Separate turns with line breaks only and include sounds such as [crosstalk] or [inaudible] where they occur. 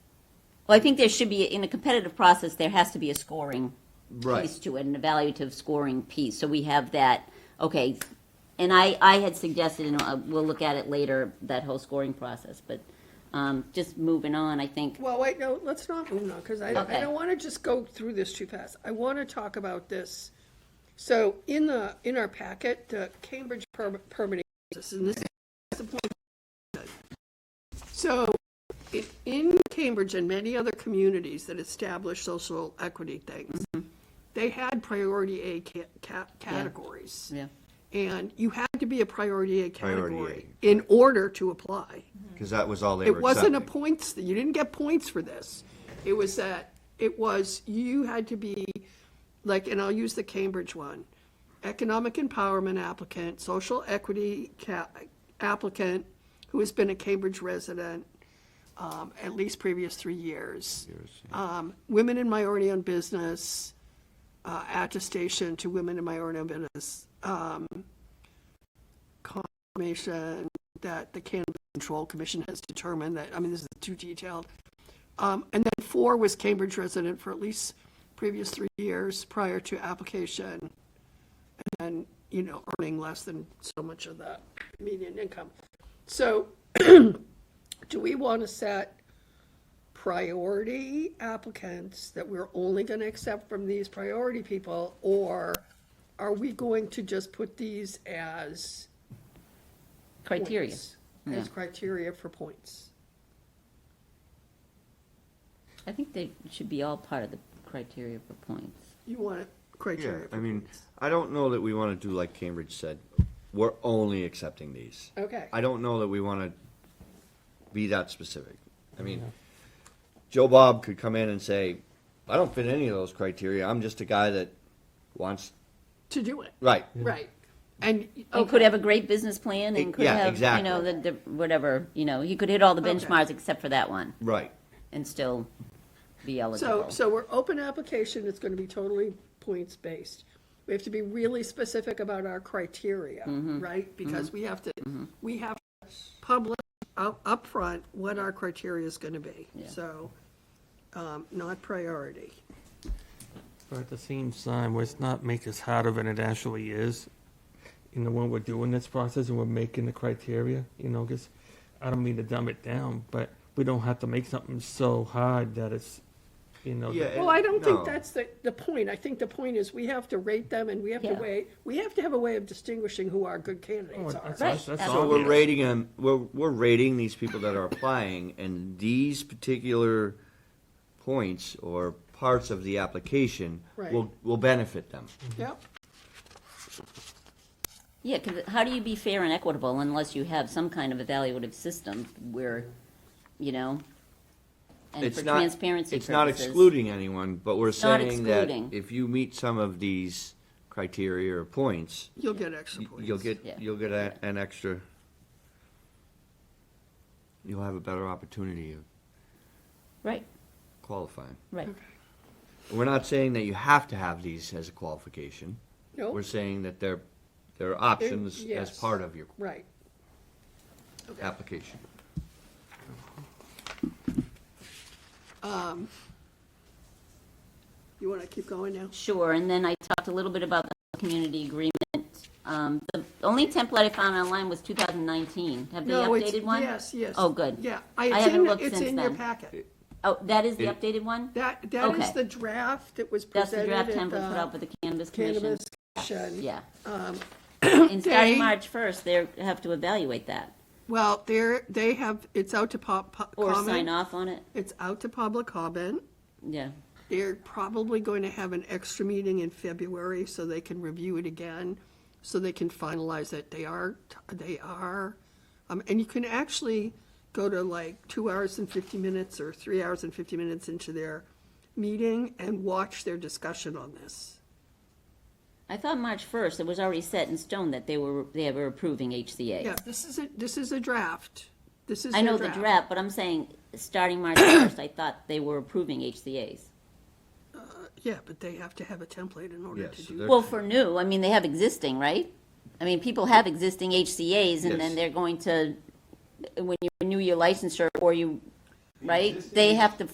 Well, I think there should be, in a competitive process, there has to be a scoring
Right.
piece to it, an evaluative scoring piece. So we have that, okay, and I, I had suggested, and uh, we'll look at it later, that whole scoring process, but um, just moving on, I think,
Well, wait, no, let's not move on, because I, I
Okay.
don't want to just go through this too fast. I want to talk about this. So in the, in our packet, the Cambridge per- permitting, process, and this is the point. So i- in Cambridge and many other communities that establish social equity things,
Mm-hmm.
they had priority A ca- ca- categories.
yeah.
And you had to be a priority A
Priority
category in order to apply.
Because that was all they were
It wasn't a
accepting.
points, you didn't get points for this. It was that, it was, you had to be, like, and I'll use the Cambridge one, economic empowerment applicant, social equity ca- applicant who has been a Cambridge resident um, at least previous three years. Um, Women in minority-owned business, uh, attestation to women in minority-owned business, um, confirmation that the Cannabis Control Commission has determined that, I mean, this is too detailed. Um, and then four was Cambridge resident for at least previous three years prior to application. And, then, you know, earning less than so much of the median income. So [clears throat] do we want to set priority applicants that we're only going to accept from these priority people? Or are we going to just put these as?
criteria.
points, As criteria for points.
I think they should be all part of the criteria for points.
You want it
Yeah,
criteria.
I
for-
mean, I don't know that we want to do like Cambridge said. We're only accepting these.
Okay.
I don't know that we want to be that specific. I mean, Joe Bob could come in and say, I don't fit any of those criteria. I'm just a guy that wants,
To do it,
right.
right. And,
He could have a great business plan and could
E, Yeah,
have, you know, the,
exactly.
the- whatever, you know, he could hit all the
Okay.
benchmarks except for that one
Right.
and still be
so,
eligible.
so we're open application, it's gonna be totally points-based. We have to be really specific about our criteria,
Mm-hmm.
right? Because we have to, we have to publish up upfront what our criteria is gonna be.
Yeah.
So, um, not priority.
But at the same time, let's not make this harder than it actually is. You know, when we're doing this process and we're making the criteria, you know, because I don't mean to dumb it down, but we don't have to make something so hard that it's, you know,
Yeah,
that-
Well, I don't think
No.
that's the, the point. I think the point is we have to rate them and we have to
Yeah.
weigh, we have to have a way of distinguishing who our good
oh,
candidates are.
that's,
Right.
that's, that's
So
So we're
obvious.
rating them, we're, we're rating these people that are applying and these particular points or parts of the application
Right.
will, will benefit them.
Yep,
Yeah, 'cause how do you be fair and equitable unless you have some kind of evaluative system where, you know, and
It's
for
not-
transparency
It's not
purposes.
excluding anyone, but we're
not
saying that
excluding.
if you meet some of these criteria or points,
you'll get extra
y-
points.
you'll get,
Yeah.
you'll get a- an extra, you'll have a better opportunity of
Right,
qualifying.
right.
We're not saying that you have to have these as a qualification.
Nope.
We're saying that they're, they're options as
yes.
part of your
Right.
application.
You want to keep going now?
Sure, and then I talked a little bit about the community agreement. Um, the only template I found online was 2019. Have they
No, it's-
updated one?
Yes, yes.
Oh, good.
Yeah. I-
I
it's
haven't
in-
looked
It's
since
in your
then.
packet.
Oh, that is the
It-
updated one?
That, that is
Okay.
the draft that was
That's the
presented
draft
at
template put out by
the
the Cannabis Commission?
Cannabis um, Commission.
Yeah.
[clears throat]
And
they-
starting March 1st, they have to evaluate that
Well, they're, they have, it's out to pop, pop-
or sign
comment.
off on it.
It's out to public comment.
Yeah,
They're probably going to have an extra meeting in February so they can review it again, so they can finalize it. They are, they are, um, and you can actually go to like two hours and fifty minutes or three hours and fifty minutes into their meeting and watch their discussion on this.
I thought March 1st, it was already set in stone that they were, they were approving HCA.
Yeah, this is a, this is a draft. This is
I know
their
the
draft.
draft, but I'm saying, starting March 1st, I thought they were approving HCA's.
Yeah, but they have to have a template in order
Yes,
to
so
do
they're-
Well, for new, I mean, they have existing, right? I mean, people have existing HCA's and
Yes.
then they're going to, when you renew your licensure or you, right? They have to